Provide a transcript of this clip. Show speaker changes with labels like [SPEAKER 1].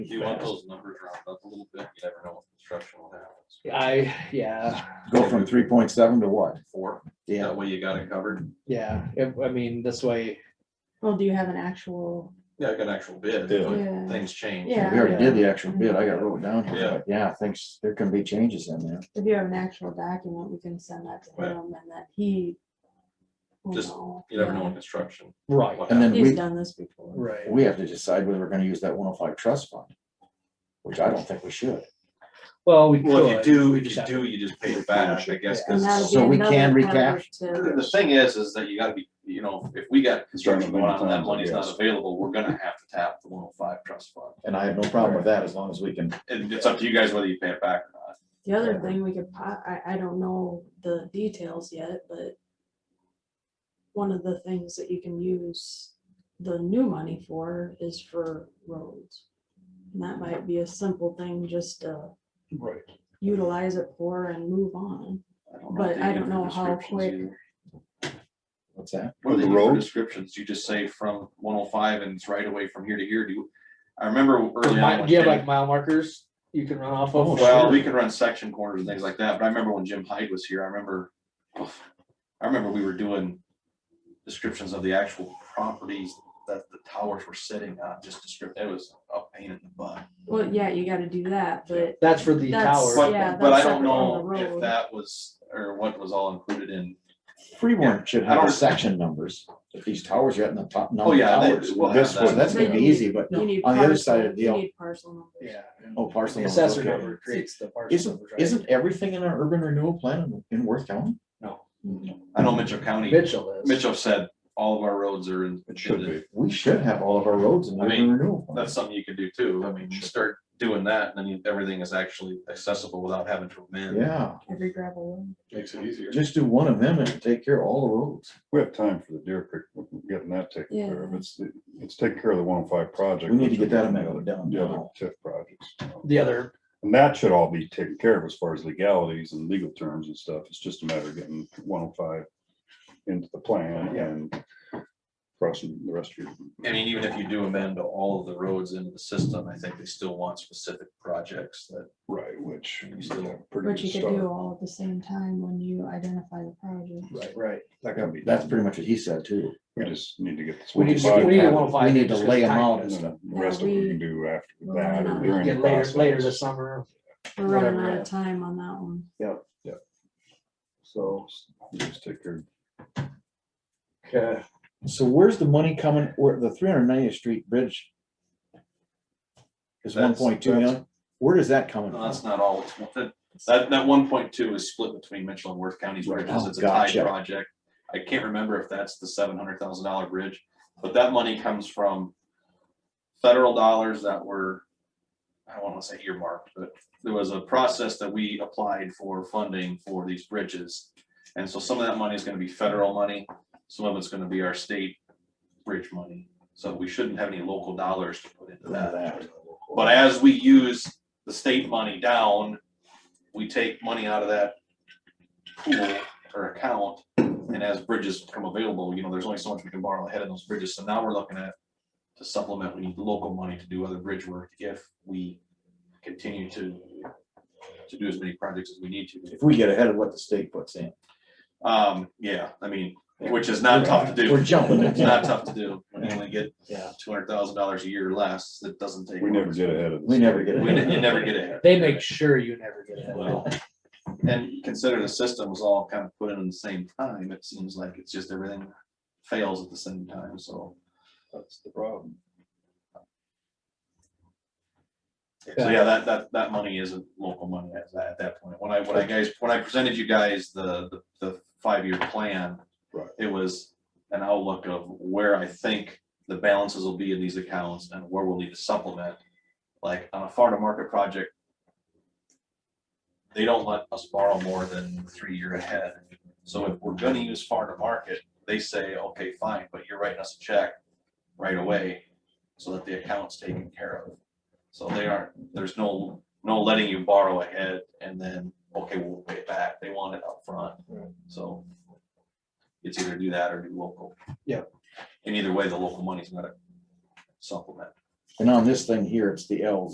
[SPEAKER 1] If you want those numbers rounded up a little bit, you never know what construction will happen.
[SPEAKER 2] I, yeah,
[SPEAKER 3] Go from three point seven to what?
[SPEAKER 1] Four,
[SPEAKER 3] Yeah,
[SPEAKER 1] that way you got it covered.
[SPEAKER 2] yeah, if- I mean, this way,
[SPEAKER 4] Well, do you have an actual,
[SPEAKER 1] Yeah, I got an actual bid,
[SPEAKER 5] Yeah.
[SPEAKER 1] but
[SPEAKER 4] Yeah.
[SPEAKER 1] things change.
[SPEAKER 3] we
[SPEAKER 4] Yeah.
[SPEAKER 3] already did the actual bid. I got it wrote down
[SPEAKER 1] Yeah.
[SPEAKER 3] here, but yeah, thanks. There can be changes in there.
[SPEAKER 4] if you have an actual document, we can send that to
[SPEAKER 1] Right.
[SPEAKER 4] him and that he. will
[SPEAKER 1] Just-
[SPEAKER 4] know.
[SPEAKER 1] You never know in construction.
[SPEAKER 2] right,
[SPEAKER 1] what
[SPEAKER 3] And then
[SPEAKER 4] He's
[SPEAKER 3] we,
[SPEAKER 4] done this before.
[SPEAKER 2] right.
[SPEAKER 3] we have to decide whether we're gonna use that one oh five trust fund. Which I don't think we should.
[SPEAKER 2] Well, we
[SPEAKER 1] happens. Well, if
[SPEAKER 2] could,
[SPEAKER 1] you do, if
[SPEAKER 2] just
[SPEAKER 1] you
[SPEAKER 2] have
[SPEAKER 1] do, you just pay it back, I guess,
[SPEAKER 4] And that would
[SPEAKER 1] because
[SPEAKER 4] be
[SPEAKER 3] So we
[SPEAKER 4] another
[SPEAKER 3] can
[SPEAKER 4] cover
[SPEAKER 3] recap-
[SPEAKER 4] to-
[SPEAKER 1] the thing is, is that you gotta be, you know, if we got construction going on and that money's not
[SPEAKER 5] Yes.
[SPEAKER 1] available, we're gonna have to tap the one oh five trust fund.
[SPEAKER 5] And I have no problem with that as long as we can,
[SPEAKER 1] And it's up to you guys whether you pay it back or not.
[SPEAKER 4] The other thing we could, po- I, I don't know the details yet, but. One of the things that you can use the new money for is for roads. And that might be a simple thing just to
[SPEAKER 2] right,
[SPEAKER 4] utilize it for and move on.
[SPEAKER 1] I don't know
[SPEAKER 4] But
[SPEAKER 1] what they
[SPEAKER 4] I
[SPEAKER 1] give
[SPEAKER 4] don't
[SPEAKER 1] for
[SPEAKER 4] know how
[SPEAKER 1] descriptions
[SPEAKER 4] quick-
[SPEAKER 1] either.
[SPEAKER 3] What's that?
[SPEAKER 1] What
[SPEAKER 5] For
[SPEAKER 1] do they
[SPEAKER 5] the
[SPEAKER 1] give for
[SPEAKER 5] road?
[SPEAKER 1] descriptions? You just say from one oh five and it's right away from here to here. Do you? I remember early on.
[SPEAKER 2] Mi-
[SPEAKER 1] when
[SPEAKER 2] do you have
[SPEAKER 1] Jim-
[SPEAKER 2] like mile markers you can run off
[SPEAKER 3] Oh,
[SPEAKER 2] of?
[SPEAKER 1] Well, we can run section corners and things like that, but I remember when Jim Hyde was here, I remember, I remember we were doing descriptions of the actual properties that the towers were sitting on, just descript, it was a pain in the butt.
[SPEAKER 4] Well, yeah, you gotta do that, but
[SPEAKER 2] That's for the
[SPEAKER 4] That's-
[SPEAKER 2] tower,
[SPEAKER 4] yeah,
[SPEAKER 1] But, but I
[SPEAKER 4] that's
[SPEAKER 1] don't
[SPEAKER 4] separate from
[SPEAKER 1] know
[SPEAKER 4] the
[SPEAKER 1] if
[SPEAKER 4] road.
[SPEAKER 1] that was, or what was all included in,
[SPEAKER 3] Freeborn should
[SPEAKER 1] I
[SPEAKER 3] have
[SPEAKER 1] don't-
[SPEAKER 3] section numbers. If these towers are in the top number
[SPEAKER 1] Oh,
[SPEAKER 3] of
[SPEAKER 1] yeah, they-
[SPEAKER 3] towers,
[SPEAKER 1] we'll have
[SPEAKER 3] this
[SPEAKER 1] that.
[SPEAKER 3] one, that's gonna
[SPEAKER 4] But
[SPEAKER 3] be
[SPEAKER 4] you need-
[SPEAKER 3] easy, but
[SPEAKER 4] you need.
[SPEAKER 3] on the other side
[SPEAKER 4] parcel-
[SPEAKER 3] of the deal.
[SPEAKER 4] You need parcel numbers.
[SPEAKER 2] yeah. and
[SPEAKER 3] Oh, parcel.
[SPEAKER 2] The
[SPEAKER 3] numbers,
[SPEAKER 2] assessor
[SPEAKER 3] okay.
[SPEAKER 2] number creates the parcel.
[SPEAKER 3] Isn't,
[SPEAKER 2] numbers, right?
[SPEAKER 3] isn't everything in our urban renewal plan in in Worth County?
[SPEAKER 2] No,
[SPEAKER 1] I know Mitchell County,
[SPEAKER 2] Mitchell is.
[SPEAKER 1] Mitchell said all of our roads are in.
[SPEAKER 5] it should be.
[SPEAKER 3] We should have all of our roads in the
[SPEAKER 1] I mean,
[SPEAKER 3] urban renewal. plan.
[SPEAKER 1] That's something you can do too. I mean, you start doing that and then you- everything is actually accessible without having to amend.
[SPEAKER 3] Yeah,
[SPEAKER 4] Every gravel road.
[SPEAKER 1] Makes it easier.
[SPEAKER 3] just do one of them and take care of all the roads.
[SPEAKER 6] We have time for the Deer Creek, we're getting that taken care of.
[SPEAKER 4] Yeah.
[SPEAKER 6] It's, it's taking care of the one oh five project.
[SPEAKER 3] We need to
[SPEAKER 6] which
[SPEAKER 3] get
[SPEAKER 6] is
[SPEAKER 3] that
[SPEAKER 6] the
[SPEAKER 3] amendment
[SPEAKER 6] other-
[SPEAKER 3] done
[SPEAKER 6] The other
[SPEAKER 3] now.
[SPEAKER 6] TIF projects.
[SPEAKER 2] The other,
[SPEAKER 6] And that should all be taken care of as far as legalities and legal terms and stuff. It's just a matter of getting one oh five into the plan
[SPEAKER 1] Yeah.
[SPEAKER 6] and crossing the rest of your.
[SPEAKER 1] I mean, even if you do amend all of the roads into the system, I think they still want specific projects that,
[SPEAKER 6] Right, which.
[SPEAKER 1] You still-
[SPEAKER 6] yeah, pretty
[SPEAKER 4] But
[SPEAKER 6] good
[SPEAKER 4] you could
[SPEAKER 6] start.
[SPEAKER 4] do all at the same time when you identify the project.
[SPEAKER 2] right, right.
[SPEAKER 6] That gotta be,
[SPEAKER 3] That's pretty much what he said too.
[SPEAKER 6] we just need to get this.
[SPEAKER 2] We need to,
[SPEAKER 6] 105
[SPEAKER 2] we need a
[SPEAKER 6] done,
[SPEAKER 2] one oh five.
[SPEAKER 3] We need to lay them out
[SPEAKER 6] And
[SPEAKER 3] and stuff.
[SPEAKER 6] then the rest of it we can do after that or
[SPEAKER 4] We
[SPEAKER 6] during. the
[SPEAKER 2] Get later, later
[SPEAKER 6] process.
[SPEAKER 2] this summer.
[SPEAKER 4] We're running
[SPEAKER 2] Whatever,
[SPEAKER 4] out
[SPEAKER 2] yeah.
[SPEAKER 4] of time on that one.
[SPEAKER 6] So we just take care of
[SPEAKER 2] Okay.
[SPEAKER 3] So where's the money coming, where the three hundred ninetieth street bridge? Is one
[SPEAKER 1] That's-
[SPEAKER 3] point two million, where does that coming
[SPEAKER 1] no, that's
[SPEAKER 3] from?
[SPEAKER 1] not all. it's one- That, that, that one point two is split between Mitchell and Worth counties bridges.
[SPEAKER 3] Oh,
[SPEAKER 1] It's a tied
[SPEAKER 3] gotcha.
[SPEAKER 1] project. I can't remember if that's the seven hundred thousand dollar bridge, but that money comes from federal dollars that were, I don't wanna say earmarked, but there was a process that we applied for funding for these bridges. And so some of that money is gonna be federal money, some of it's gonna be our state bridge money. So we shouldn't have any local dollars to put into that. But as we use the state money down, we take money out of that pool or account. And as bridges become available, you know, there's only so much we can borrow ahead of those bridges. So now we're looking at to supplement, we need local money to do other bridge work if we continue to to do as many projects as we need to.
[SPEAKER 3] If we get ahead of what the state puts in.
[SPEAKER 1] Um, yeah, I mean, which is not tough to
[SPEAKER 3] We're
[SPEAKER 1] do.
[SPEAKER 3] jumping
[SPEAKER 1] It's not
[SPEAKER 3] it.
[SPEAKER 1] tough to do. When you only get
[SPEAKER 2] Yeah.
[SPEAKER 1] two hundred thousand dollars a year or less, it doesn't take.
[SPEAKER 6] We never
[SPEAKER 1] much.
[SPEAKER 6] get ahead of. the
[SPEAKER 3] We never get
[SPEAKER 6] state.
[SPEAKER 1] We ne- You never get ahead.
[SPEAKER 2] They make sure you never get
[SPEAKER 1] Well,
[SPEAKER 2] it.
[SPEAKER 1] And consider the system was all kind of put in at the same time, it seems like it's just everything fails at the same time, so.
[SPEAKER 6] That's the problem.
[SPEAKER 1] So yeah, that, that, that money isn't local money at that, at that point. When I, when I guys, when I presented you guys the, the, the five-year plan.
[SPEAKER 6] Right.
[SPEAKER 1] It was an outlook of where I think the balances will be in these accounts and where we'll need to supplement. Like on a farm-to-market project. They don't let us borrow more than three year ahead. So if we're gonna use farm-to-market, they say, okay, fine, but you're writing us a check right away. So that the account's taken care of. So they aren't, there's no, no letting you borrow ahead and then, okay, we'll pay it back. They want it upfront.
[SPEAKER 2] Right.
[SPEAKER 1] So it's either do that or do local.
[SPEAKER 2] Yeah.
[SPEAKER 1] And either way, the local money's gonna supplement.
[SPEAKER 3] And on this thing here, it's the L's